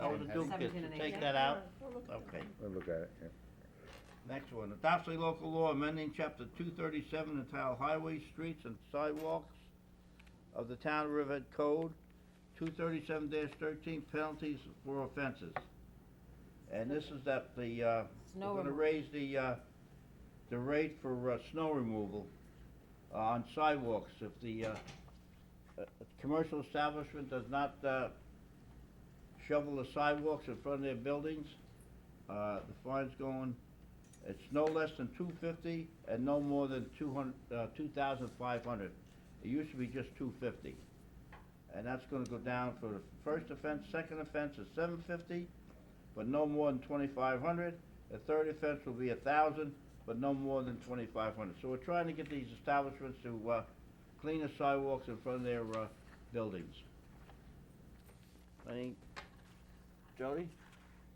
all the Seventeen. duplicates, Seventeen and to take eighteen. that out? Okay. I'll look at it, yeah. Next one, adopts a local law amending chapter two thirty-seven entitled Highways, Streets, and Sidewalks of the Town of Riverhead Code, two thirty-seven thirteen penalties for offenses. And this is that the, uh, Snow we're gonna removal. raise the, uh, the rate for, uh, snow removal on sidewalks if the, uh, uh, commercial establishment does not, uh, shovel the sidewalks in front of their buildings, uh, the fine's going, it's no less than two fifty and no more than two hundred uh, two thousand five hundred. It used to be just two fifty. And that's gonna go down for the first offense, second offense is seven fifty, but no more than twenty-five hundred. The third offense will be a thousand, but no more than twenty-five hundred. So we're trying to get these establishments to, uh, clean the sidewalks in front of their, uh, buildings. Any, Jody,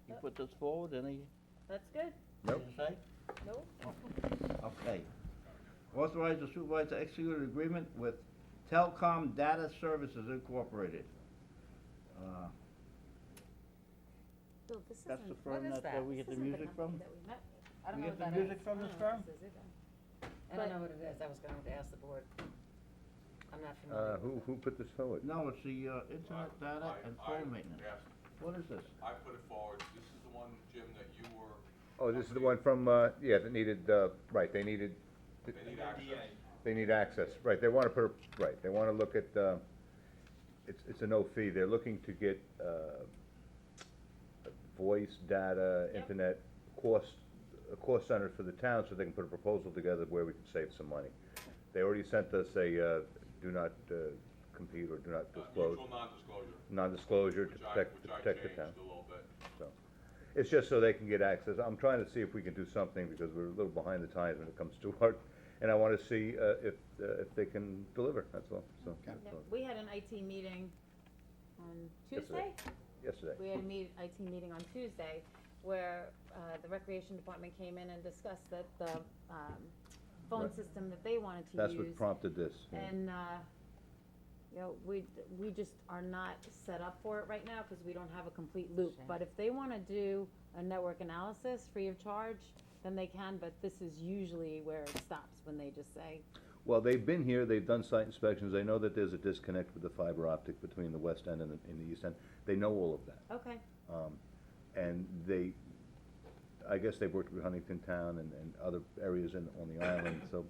you put this forward, any, That's good. you Nope. say? Nope. Okay. Authorize the supervisor to execute an agreement with Telcom Data Services Incorporated. Uh, Bill, this That's the isn't, what firm is that, that? that we this get the isn't the music company from? that we met with. I don't We know get what the that is. music from this I firm? don't know if this is it. I don't know what it is. I was going to ask the board. I'm not Uh, familiar. who, who put this forward? No, it's the, uh, internet data I- and I- phone maintenance. Yes, What is this? I put it forward. This is the one, Jim, that you were, Oh, this is the one from, uh, yeah, that needed, uh, right, they needed, they need access. they need access, right, they wanna put, a- right, they wanna look at, uh, it's, it's a no fee, they're looking to get, uh, voice, data, internet, cost, a cost center for the town, so they can put a proposal together where we can save some money. They already sent us a, uh, do not, uh, compete or do not Uh, disclose, Mutual non-disclosure, non-disclosure to which I, protect, which to I protect the changed town. a little bit. So, it's just so they can get access. I'm trying to see if we can do something because we're a little behind the times when it comes to art. And I wanna see, uh, if, uh, if they can deliver, that's all, so. No, so, We had an IT meeting on Tuesday. Yesterday. Yesterday. We had a meet, IT meeting on Tuesday where, uh, the recreation department came in and discussed that the, um, phone Right. system that they wanted to use. That's what prompted this. yeah. And, uh, you know, we, we just are not set up for it right now, cause we don't have a complete loop. Sure. But if they wanna do a network analysis free of charge, then they can, but this is usually where it stops, when they just say, Well, they've been here, they've done site inspections, they know that there's a disconnect with the fiber optic between the west end and the, and the east end. They know all of that. okay, Um, and they, I guess they've worked with Huntington Town and, and other areas in, on the island, so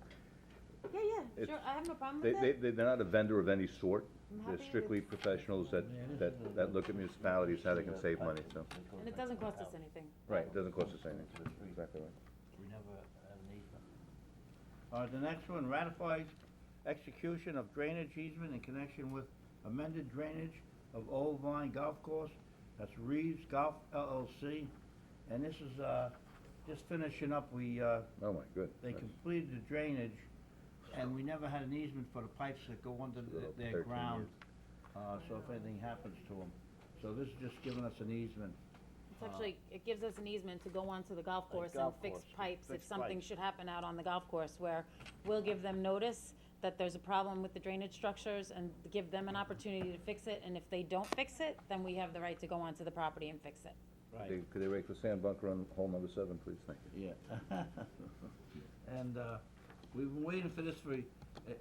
yeah, yeah, It's- sure, I have no problem They, with they, it. they're not a vendor of any sort. I'm happy They're with- strictly professionals that, Yeah, this is a- that, that look at municipalities, how they can save money, so. And it doesn't cost us anything. Right, it doesn't cost us anything. Exactly right. We never have an easement. Uh, the next one ratifies execution of drainage easement in connection with amended drainage of Old Vine Golf Course. That's Reeves Golf LLC. And this is, uh, just finishing up, we, uh, Oh, my good. they That's completed the drainage, and we never had an easement for the pipes that go under th- Little their 13 ground, uh, so if anything happens to them. So this is just giving us an easement. It's actually, it gives us an easement to go onto the golf course and Uh, golf fix course, pipes if fix something pipes. should happen out on the golf course, where we'll give them notice that there's a problem with the drainage structures and give them an opportunity to fix it, and if they don't fix it, then we have the right to go onto the property and fix it. They- Could they rake the sand bunker on hole number seven, please? Thank you. Yeah. And, uh, we've been waiting for this for, it,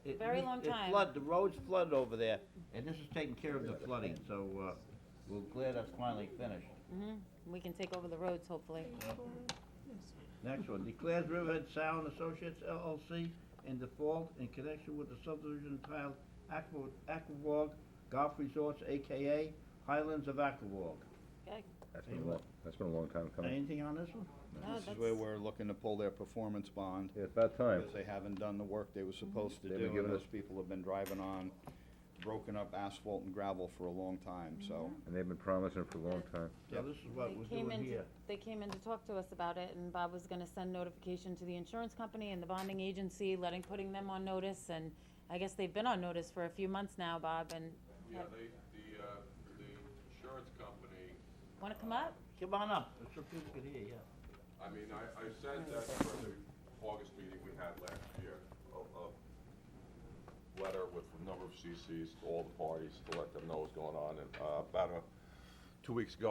it. Very it- long it time. flood, the roads flooded over there, and this is taking care of the flooding, so, uh, we're glad that's finally finished. Mm-hmm, we can take over the roads, hopefully. Next one, declares Riverhead Sound Associates LLC in default in connection with the subdivision entitled Aqua- Aquavog Golf Resorts, AKA Highlands of Aquavog. Okay, That's been a long, that's been a long time coming. Anything on this one? no, This is Oh, Ah, that's- where we're looking to pull their performance bond, Yeah, It's about time. because they haven't done the work they were supposed to They've do, been and giving us- those people have been driving on broken up asphalt and gravel for a long time, so. And they've been promising it for a long time. So this is what They we're came doing in, to- here. they came in to talk to us about it, and Bob was gonna send notification to the insurance company and the bonding agency, letting, putting them on notice, and I guess they've been on notice for a few months now, Bob, and Yeah, they, the, uh, the insurance company, wanna come up? Come on up, so people can hear, yeah. I mean, I, I sent that for the August meeting we had last year, a, a letter with a number of CCs to all the parties to let them know what's going on, and, uh, about a, two weeks ago,